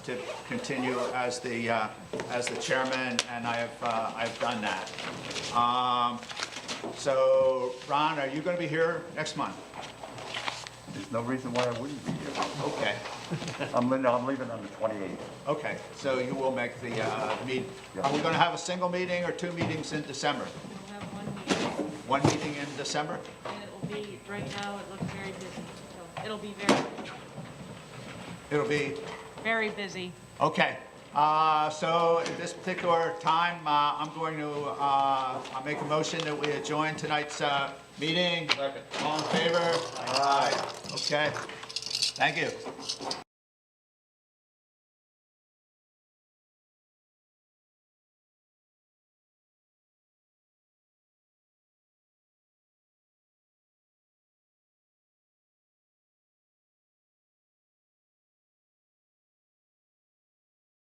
to continue as the, uh, as the chairman, and I have, uh, I've done that. Um, So, Ron, are you going to be here next month? There's no reason why I wouldn't be here. Okay, I'm, li- I'm leaving on the 28th. okay, so you will make the uh, meet. Are we going to have a single meeting or two meetings in December? We'll have one meeting, One meeting in December? and it will be, right now, it looks very busy. So It'll be very, It'll be very busy. Okay, uh, so at this particular time, uh, I'm going to, uh, I'll make a motion that we adjourn tonight's uh, meeting. All in favor? Aye. Okay, thank you.